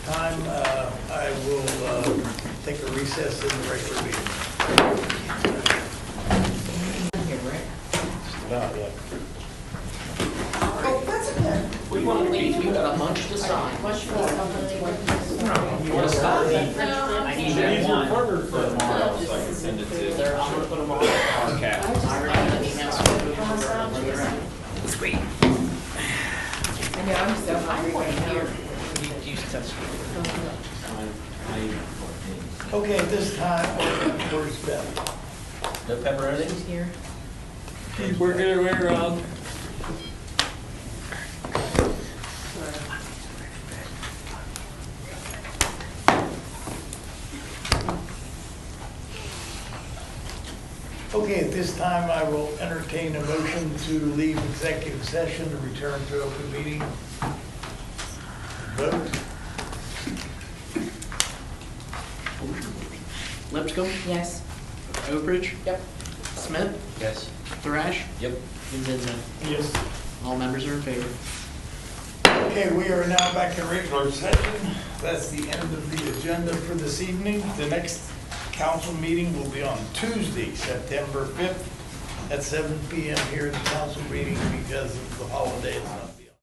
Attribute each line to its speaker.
Speaker 1: I will uh, take a recess in the regular meeting.
Speaker 2: Oh, that's okay.
Speaker 3: We want to leave, we've got a bunch to sign. You want to stop? I need that one for tomorrow, so I can send it to. There, I'm gonna put them all in our cap.
Speaker 4: Sweet.
Speaker 5: I know, I'm so hungry right now.
Speaker 1: Okay, at this time, where's Beth?
Speaker 3: No pepperonis?
Speaker 1: She's working her way around. Okay, at this time, I will entertain a motion to leave executive session to return to open meeting. Vote?
Speaker 3: Lipscomb,
Speaker 5: Yes.
Speaker 3: Oakridge? Yep. Smith,
Speaker 6: Yes.
Speaker 3: Thrash? Yep. And Zizza.
Speaker 1: Yes.
Speaker 3: All members are in favor.
Speaker 1: Okay, we are now back in regular session. That's the end of the agenda for this evening. The next council meeting will be on Tuesday, September 5th at 7 PM here in the council meeting because of the holiday. It's not-